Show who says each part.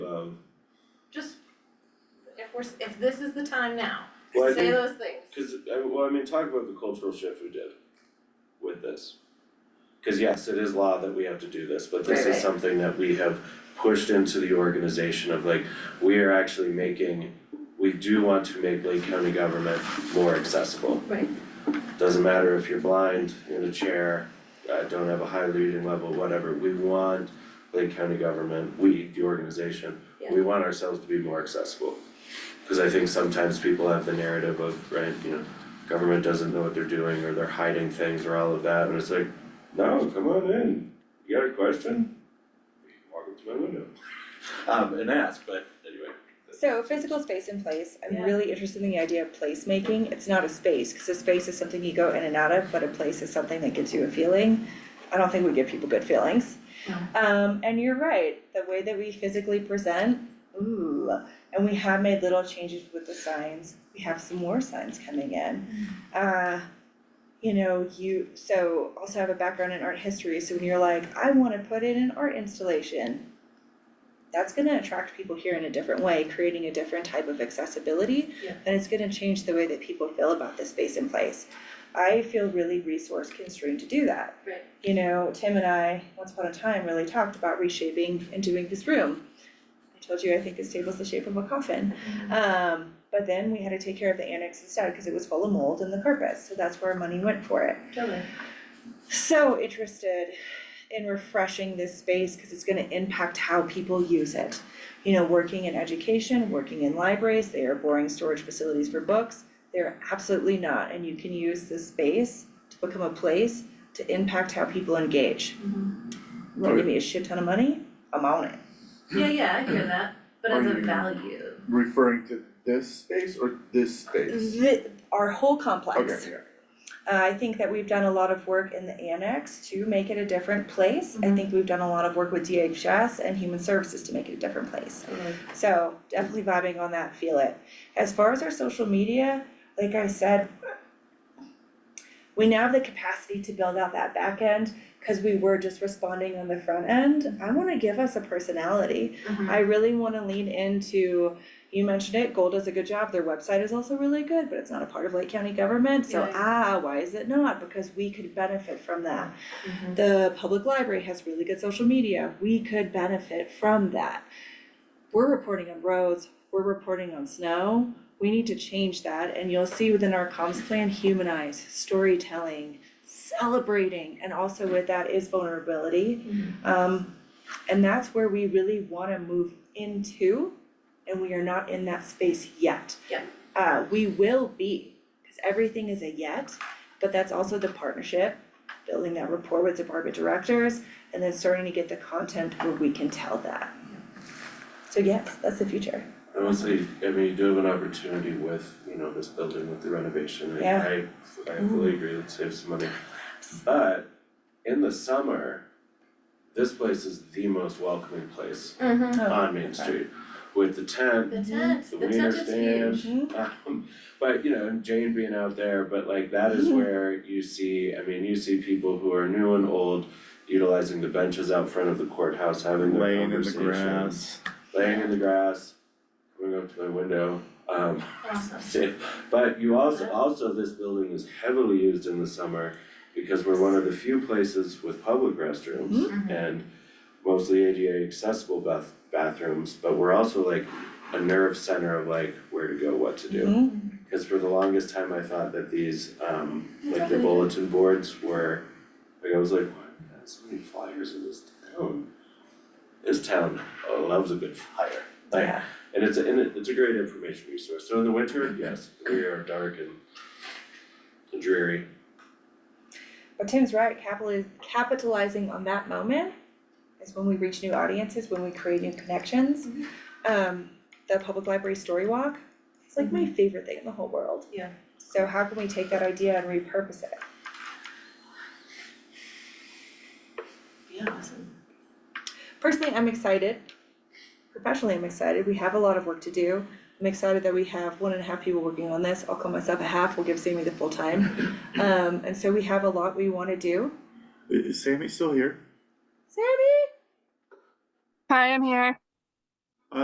Speaker 1: Um,
Speaker 2: we're, s- if this is the time now,
Speaker 1: Well, I
Speaker 2: say
Speaker 1: think,
Speaker 2: those things.
Speaker 1: cause I well, I mean, talk about the cultural shift we did with this. Cause yes, it is law that we have to do this, but this
Speaker 2: Right,
Speaker 1: is
Speaker 2: right.
Speaker 1: something that we have pushed into the organization of like, we are actually making, we do want to make Lake County government more accessible.
Speaker 2: Right.
Speaker 1: Doesn't matter if you're blind, in a chair, uh, don't have a high reading level, whatever, we want Lake County government, we, the organization, we want ourselves to be more accessible. Cause I think sometimes people have the narrative of, right, you know, government doesn't know what they're doing or they're hiding things or all of that, and it's like, no, come on in, you got a question? Walk up to my window. Um, and ask, but anyway.
Speaker 3: So physical space in place, I'm
Speaker 2: Yeah.
Speaker 3: really interested in the idea of placemaking, it's not a space, cause a space is something you go in and out of, but a place is something that gives you a feeling. I don't think we give people good feelings.
Speaker 2: No.
Speaker 3: Um, and you're right, the way that we physically present, ooh, and we have made little changes with the signs, we have some more signs coming in.
Speaker 2: Mm.
Speaker 3: Uh, you know, you, so also have a background in art history, so when you're like, I wanna put in an art installation, that's gonna attract people here in a different way, creating a different type of accessibility.
Speaker 2: Yeah.
Speaker 3: And it's gonna change the way that people feel about the space and place. I feel really resource constrained to do that.
Speaker 2: Right.
Speaker 3: You know, Tim and I, once upon a time, really talked about reshaping and doing this room. I told you, I think this table's the shape of a coffin. Um, but then we had to take care of the annex instead, cause it was full of mold and the carpet, so that's where our money went for it
Speaker 2: Totally.
Speaker 3: so interested in refreshing this space because it's gonna impact how people use it. You know, working in education, working in libraries, they are boring storage facilities for books. They're absolutely not, and you can use this space to become a place to impact how people engage.
Speaker 2: Mm-hmm.
Speaker 3: You wanna give me a shit ton of money? I'm on it.
Speaker 2: Yeah, yeah, I hear that, but as
Speaker 4: Are
Speaker 2: a
Speaker 4: you-
Speaker 2: value.
Speaker 4: Referring to this space or this space?
Speaker 3: Thi- our whole
Speaker 4: Okay,
Speaker 3: complex.
Speaker 4: yeah.
Speaker 3: Uh, I think that we've done a lot of work in the annex to make it a different place. I
Speaker 2: Mhm.
Speaker 3: think we've done a lot of work with DHS and Human Services to make it a different place.
Speaker 2: Totally.
Speaker 3: So definitely vibing on that, feel it. As far as our social media, like I said, we now have the capacity to build out that back end because we were just responding on the front end. I wanna give us a personality. I really wanna lean into, you mentioned it, Gold does a good job, their website is also really good, but it's not a part of Lake County government, so
Speaker 2: Yeah.
Speaker 3: ah, why is it not? Because we could benefit from that.
Speaker 2: Mhm.
Speaker 3: The public library has really good social media. We could benefit from that. We're reporting on roads, we're reporting on snow. We need to change that and you'll see within our comms plan, humanize, storytelling, celebrating, and also with that is vulnerability.
Speaker 2: Mhm.
Speaker 3: Um, and that's where we really wanna move into and we are not in that space yet.
Speaker 2: Yeah.
Speaker 3: Uh, we will be, cause everything is a yet, but that's also the partnership building that rapport with department directors and then starting to get the content where we can tell that. So yes, that's the future.
Speaker 1: I will say, I mean, you do have an opportunity with, you know, this building with the renovation, I I
Speaker 3: Yeah.
Speaker 1: I fully agree, let's save some money. But in the summer, this place is the most welcoming place
Speaker 2: Mhm.
Speaker 3: Oh,
Speaker 1: on Main Street with the tent,
Speaker 2: The tent,
Speaker 1: The
Speaker 2: the tent
Speaker 1: wiener
Speaker 2: is
Speaker 1: stand.
Speaker 2: huge.
Speaker 3: Mm-hmm.
Speaker 1: Um, but you know, and Jane being out there, but like that is where you see, I mean, you see people who are new and old utilizing the benches out front of the courthouse, having their
Speaker 4: Laying in the
Speaker 1: conversations.
Speaker 4: grass.
Speaker 1: Laying in the grass, coming up to my window, um,
Speaker 2: Awesome.
Speaker 1: see, but you also,
Speaker 2: Yeah.
Speaker 1: also this building is heavily used in the summer because we're one of the few places with public restrooms
Speaker 2: Mhm.
Speaker 1: and mostly ADA accessible bath bathrooms, but we're also like a nerve center of like where to go, what to do.
Speaker 3: Mhm.
Speaker 1: Cause for the longest time, I thought that these, um, like the
Speaker 2: Okay.
Speaker 1: bulletin boards were, like I was like, why do we have so many flyers in this town? This town loves a good flyer, like,
Speaker 3: Yeah.
Speaker 1: and it's a, and it- it's a great information resource, so in the winter, yes, we are dark and dreary.
Speaker 3: But Tim's right, capitaliz- capitalizing on that moment is when we reach new audiences, when we create new connections.
Speaker 2: Mhm.
Speaker 3: Um, the public library story walk, it's like my favorite thing in the whole world.
Speaker 2: Yeah.
Speaker 3: So how can we take that idea and repurpose it?
Speaker 2: Yeah, awesome.
Speaker 3: personally, I'm excited. Professionally, I'm excited. We have a lot of work to do. I'm excited that we have one and a half people working on this. I'll call myself a half. We'll give Sammy the full time. Um, and so we have a lot we want to do.
Speaker 4: Is Sammy still here?
Speaker 3: Sammy,
Speaker 5: Hi, I'm here.